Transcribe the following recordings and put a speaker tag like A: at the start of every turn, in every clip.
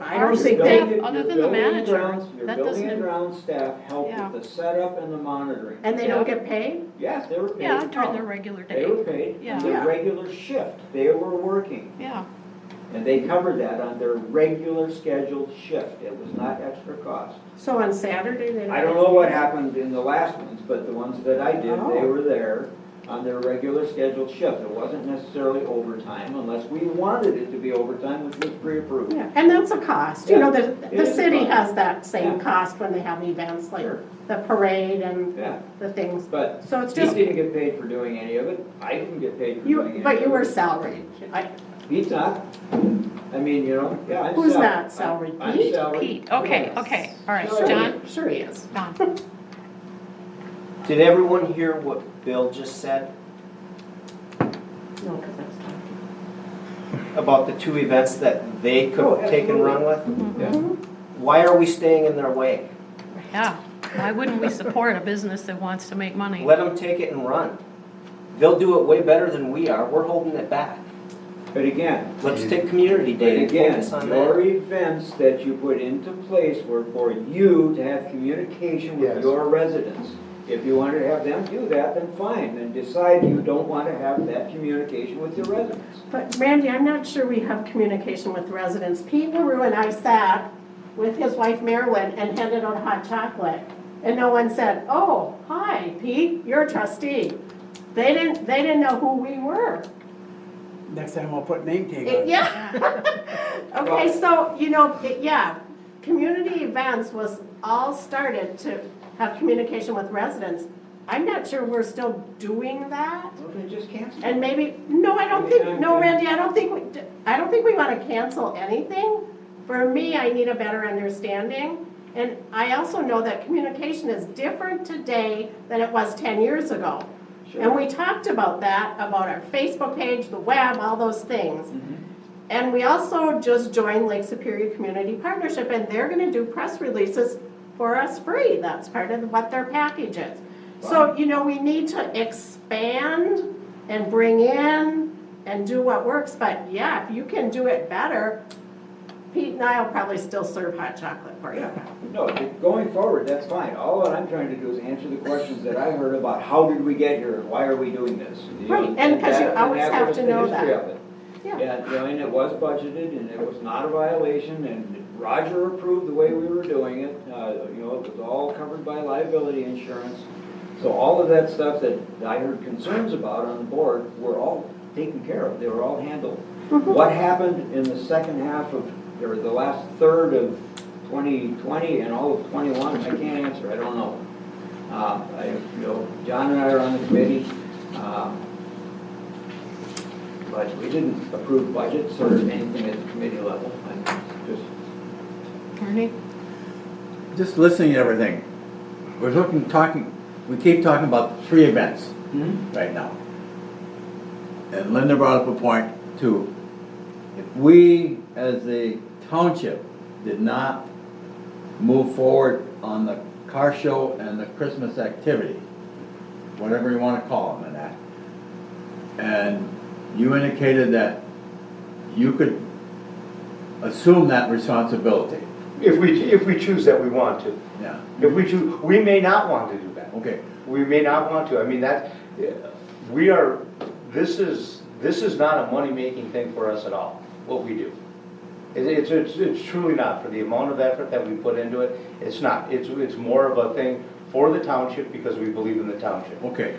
A: I would say
B: Your
A: thank-
B: building-
C: Other
B: your
C: than the
B: building and
C: manager,
B: grounds- Your
C: that
B: building
C: doesn't-
B: and ground staff helped
C: Yeah.
B: with the setup and the monitoring.
A: And they don't get paid?
B: Yes, they were paid.
C: Yeah, during their
B: Oh,
C: regular
B: They
C: day.
B: were paid,
C: Yeah.
B: their regular shift, they were working,
C: Yeah,
B: and they covered that on their regular scheduled shift, it was not extra cost.
A: So on Saturday, they don't?
B: I don't know what happened in the last ones, but the ones that I did, they
A: Oh.
B: were there on their regular scheduled shift. It wasn't necessarily overtime unless we wanted it to be overtime, which was pre-approved.
A: Yeah, And that's a cost, you know, the,
B: It
A: the
B: is a
A: city
B: cost.
A: has that same
B: Yeah.
A: cost when they have events like
B: Sure.
A: the parade and
B: Yeah,
A: the things.
B: but
A: So it's
B: he
A: just,
B: didn't get paid for doing any of it. I didn't get paid for doing any of
A: you,
B: it.
A: but you were salaried. I-
B: He's not. I mean, you know, yeah, I'm salaried.
A: Who's not salaried?
B: I'm- I'm
A: Pete?
B: salaried.
C: Pete, okay,
B: Yes.
C: okay, all right,
B: Sure.
C: John,
A: Sure he is.
C: John,
D: Did everyone hear what Bill just said
A: No, because that's not.
D: about the two events that they
B: Oh,
D: could take and run with?
B: Yeah.
A: Mm-hmm.
D: Why are we staying in their way?
C: yeah. Why wouldn't we support a business that wants to make money?
D: Let them take it and run. They'll do it way better than we are. We're holding it back.
B: But again,
D: Let's take community
B: but
D: day and
B: again,
D: focus on
B: your
D: that.
B: events that you put into place were for you to have communication with
E: Yes.
B: your residents. If you wanted to have them do that, then fine, then decide you don't want to have that communication with your residents.
A: But Randy, I'm not sure we have communication with residents. Pete LaRue and I sat with his wife Marilyn and handed out hot chocolate. And no one said, oh, hi, Pete, you're a trustee. They didn't, they didn't know who we were.
E: Next time I'll put name tag
A: It-
E: on it.
A: Yeah. Okay, so, you know, it- yeah, community events was all started to have communication with residents. I'm not sure we're still doing that.
B: Well, then just cancel.
A: And maybe, no, I don't think, no, Randy, I don't think, we I don't think we want to cancel anything. For me, I need a better understanding. And I also know that communication is different today than it was 10 years ago. And we talked about that, about our Facebook page, the web, all those things. And we also just joined Lake Superior Community Partnership, and they're gonna do press releases for us free. That's part of what their package is. So, you know, we need to expand and bring in and do what works, but yeah, if you can do it better, Pete and I will probably still serve hot chocolate for you.
B: Yeah, no, going forward, that's fine. All that I'm trying to do is answer the questions that I heard about how did we get here, why are we doing this? you know,
A: Right, and 'cause you
B: that- and
A: always
B: that
A: have
B: was
A: to
B: the
A: know
B: history
A: that.
B: of it.
A: Yeah.
B: And, you know, and it was budgeted, and it was not a violation, and Roger approved the way we were doing it. Uh, You know, it was all covered by liability insurance. So all of that stuff that I heard concerns about on the board were all taken care of, they were all handled.
A: Mm-hmm.
B: What happened in the second half of, or the last third of 2020 and all of '21, I can't answer, I don't know. Uh, I, you know, John and I are on the committee, uh, but we didn't approve budgets or anything at the committee level. I'm just
C: Ernie?
F: just listening to everything, we're talking, talking, we keep talking about three events
B: Hmm?
F: right now. And Linda brought up a point too. If we, as a township, did not move forward on the car show and the Christmas activity, whatever you wanna call them and that, and you indicated that you could assume that responsibility,
G: If we, if we choose that we want to.
F: yeah,
G: If we choose, we may not want to do that.
F: okay.
G: We may not want to. I mean, that, we are, this is, this is not a money-making thing for us at all, what we do. It- It's, it's, it's truly not. For the amount of effort that we put into it, it's not. It's, it's more of a thing for the township because we believe in the township.
F: Okay,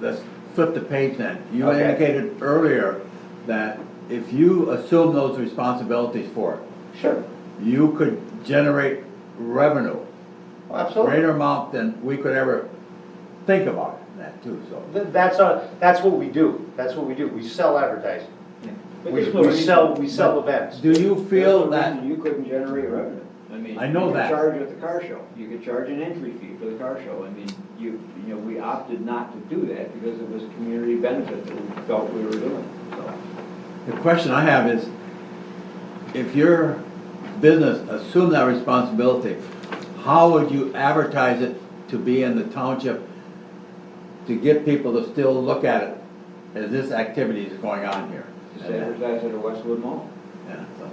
F: let's flip the page then. You
G: Okay.
F: indicated earlier that if you assume those responsibilities for it,
G: Sure.
F: you could generate revenue,
G: Absolutely.
F: greater amount than we could ever think about in that too, so.
G: Th- That's our, that's what we do. That's what we do. We sell advertising.
B: But
G: We,
B: there's no
G: we
B: reason-
G: sell, we sell events.
F: Do you feel
B: there's no
F: that,
B: reason You couldn't generate revenue. I mean.
F: I know
B: you could
F: that.
B: Charge at the car show. You could charge an entry fee for the car show. I mean, you, you know, we opted not to do that because it was a community benefit that we felt we were doing, so.
F: the question I have is, if your business assumed that responsibility, how would you advertise it to be in the township to get people to still look at it as this activity is going on here?
B: Just advertise it at Westwood Mall.
F: Yeah, so.